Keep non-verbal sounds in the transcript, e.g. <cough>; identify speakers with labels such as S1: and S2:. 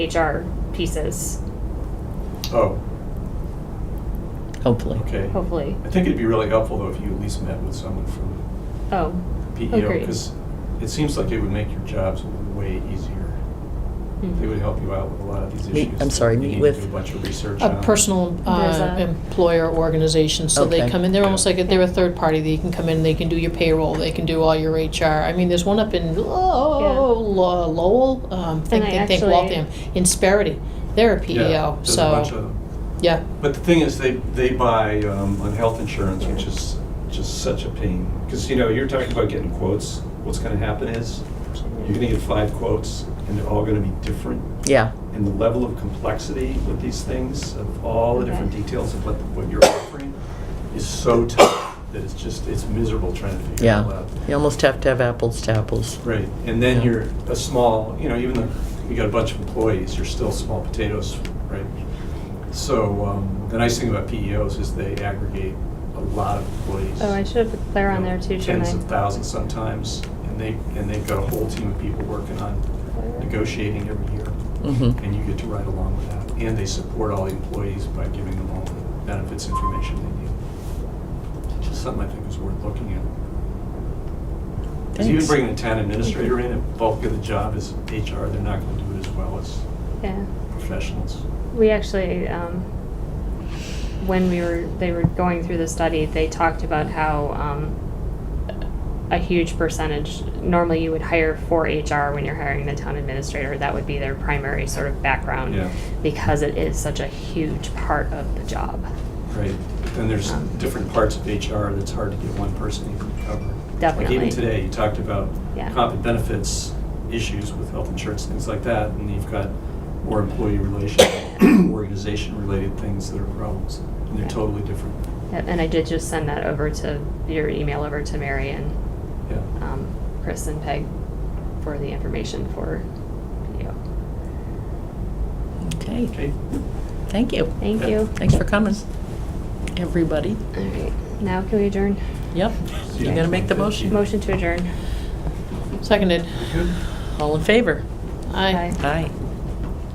S1: HR pieces,
S2: Oh,
S3: Hopefully.
S2: okay.
S4: Oh.
S1: hopefully.
S2: I think it'd be really helpful though if you at least met with someone from
S1: Oh,
S2: PEO
S1: Agreed.
S2: because it seems like it would make your jobs way easier.
S1: Hmm.
S2: They would help you out with a lot of these
S3: Meet-
S2: issues.
S3: I'm sorry,
S2: that you need
S3: meet
S2: to
S3: with-
S2: do A bunch of research
S4: A
S2: on.
S4: personal
S1: There's
S4: uh,
S1: a-
S4: employer organization, so they
S3: Okay.
S4: come in, they're almost like, a- they're a third party, they can come in, they can do your payroll, they can do all your HR. I mean, there's one up in Lo- Lo- Lowell, um, think,
S1: I
S4: think think
S1: actually-
S4: Waltham, in Sparity, they're a
S2: Yeah,
S4: PEO,
S2: there's a bunch
S4: E so,
S2: of-
S4: yeah.
S2: But the thing is, they, they buy um, on health insurance, which is just such a pain. Because, you know, you're talking about getting quotes. What's going to happen is you're going to get five quotes and they're all going to be different.
S3: Yeah.
S2: And the level of complexity with these things, of all the different
S1: Okay.
S2: details of what, what you're offering, is so tough that it's just, it's miserable trying to figure it all
S3: Yeah.
S2: out.
S3: You almost have to have apples to apples.
S2: Right, and then
S3: Yeah.
S2: you're a small, you know, even though you got a bunch of employees, you're still small potatoes, right? So, um, the nice thing about PEOs is they aggregate a lot of employees.
S1: Oh, I should have put Claire on
S2: you
S1: there
S2: know,
S1: too, shouldn't
S2: Tens of
S1: I?
S2: thousands sometimes, and they, and they've got a whole team of people working on negotiating every year,
S3: Mm-hmm.
S2: and you get to ride along with that. And they support all the employees by giving them all the benefits information they need. It's just something I think is worth looking at. Because even
S3: Thanks.
S2: bringing a town administrator in, if bulk of the job is HR, they're not gonna do it as well as
S1: Yeah,
S2: professionals.
S1: we actually, um, when we were, they were going through the study, they talked about how, um, a huge percentage, normally you would hire for HR when you're hiring the town administrator, that would be their primary sort of background.
S2: Yeah.
S1: Because it is such a huge part of the job,
S2: Right, but then there's different parts of HR that's hard to get one person even to cover. Like
S1: Definitely.
S2: even today, you talked about
S1: Yeah.
S2: comp and benefits issues with health insurance, things like that, and you've got more employee relation,
S1: <coughs>
S2: organization-related things that are problems, and they're
S1: Right.
S2: totally different,
S1: Yep, and I did just send that over to, your email over to Mary and
S2: yeah.
S1: um, Chris and Peg for the information for you.
S3: Okay.
S2: Okay,
S3: Thank you.
S1: Thank
S2: Yeah.
S1: you.
S3: Thanks for coming, everybody.
S1: All right, now can we adjourn?
S3: Yep.
S2: See
S3: You
S2: you
S3: gotta make the
S2: next
S3: motion.
S2: month.
S1: Motion to adjourn.
S4: Seconded,
S2: good?
S3: All in favor?
S4: aye.
S1: Aye.
S3: Aye.